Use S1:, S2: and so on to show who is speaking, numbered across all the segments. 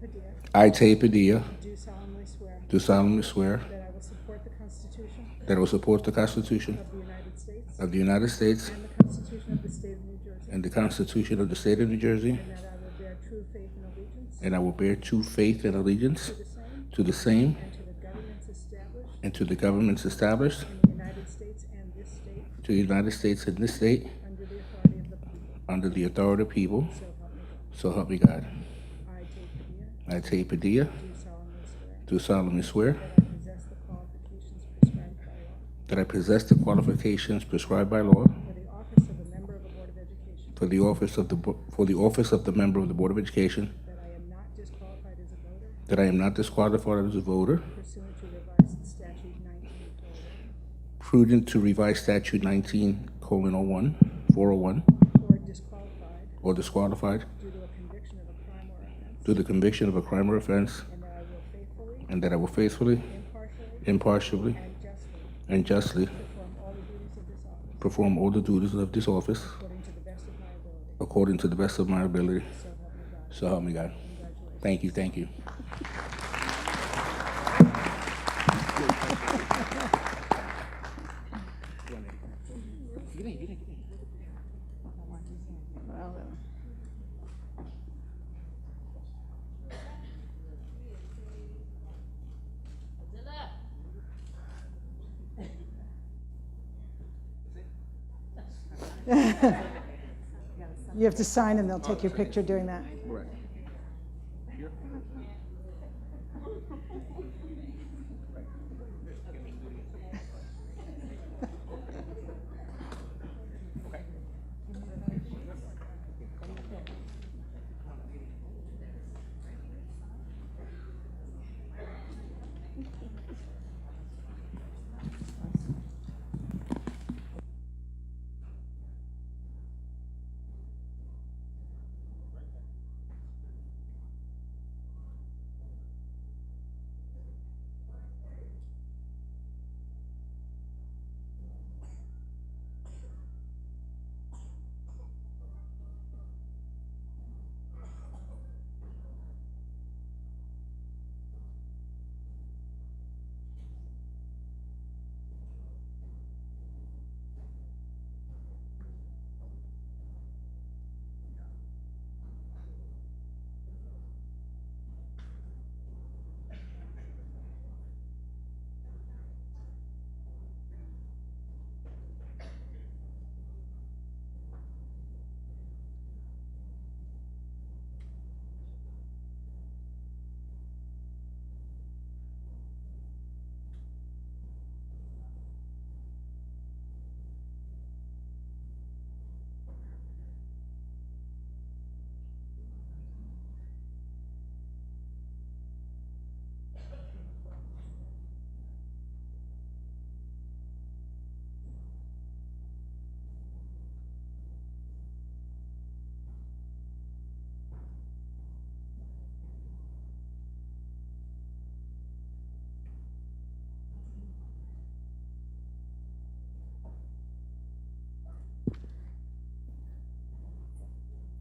S1: Padilla,
S2: I, Tay Padilla,
S1: do solemnly swear
S2: do solemnly swear
S1: that I will support the Constitution
S2: that I will support the Constitution
S1: of the United States
S2: of the United States
S1: and the Constitution of the State of New Jersey,
S2: and the Constitution of the State of New Jersey,
S1: and that I will bear true faith and allegiance
S2: and I will bear true faith and allegiance
S1: to the same
S2: to the same
S1: and to the governments established
S2: and to the governments established
S1: in the United States and this state
S2: to the United States and this state
S1: under the authority of the people.
S2: under the authority of the people,
S1: So help me God.
S2: so help me God.
S1: I, Tate Padilla,
S2: I, Tay Padilla,
S1: do solemnly swear
S2: do solemnly swear
S1: that I possess the qualifications prescribed by law
S2: that I possess the qualifications prescribed by law
S1: for the office of a member of the Board of Education,
S2: for the office of the, Bo- for the office of the member of the Board of Education,
S1: that I am not disqualified as a voter
S2: that I am not disqualified as a voter,
S1: pursuant to revised statute 1901,
S2: prudent to revise statute 19 colon 01, 401,
S1: or disqualified
S2: or disqualified
S1: due to a conviction of a crime or offense,
S2: through the conviction of a crime or offense,
S1: and that I will faithfully,
S2: and that I will faithfully,
S1: impartially,
S2: impartially,
S1: and justly
S2: and justly
S1: perform all the duties of this office
S2: perform all the duties of this office
S1: according to the best of my ability,
S2: according to the best
S1: so
S2: of my ability.
S1: help me God.
S2: So help me God.
S1: Congratulations.
S2: Thank you, thank you.
S1: You have to sign and they'll take your picture doing that.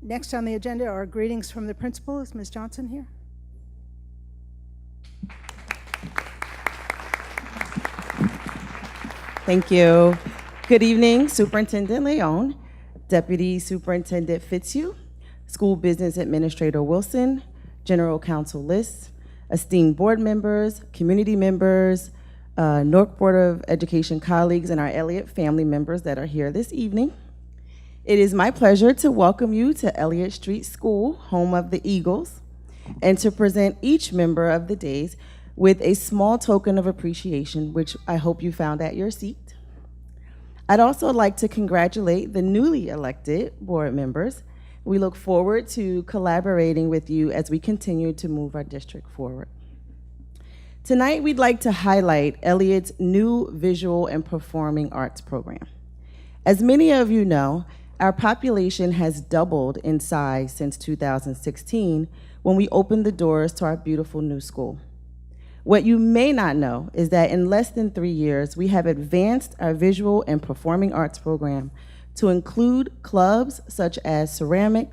S1: Next on the agenda are greetings from the principal. Is Ms. Johnson here?
S3: Thank you. Good evening, Superintendent Leon, Deputy Superintendent Fitzhugh, School Business Administrator Wilson, General Counsel List, esteemed board members, community members, uh, Newark Board of Education colleagues, and our Elliott family members that are here this evening. It is my pleasure to welcome you to Elliott Street School, home of the Eagles, and to present each member of the days with a small token of appreciation, which I hope you found at your seat. I'd also like to congratulate the newly elected board members. We look forward to collaborating with you as we continue to move our district forward. Tonight, we'd like to highlight Elliott's new visual and performing arts program. As many of you know, our population has doubled in size since 2016 when we opened the doors to our beautiful new school. What you may not know is that in less than three years, we have advanced our visual and performing arts program to include clubs such as ceramic,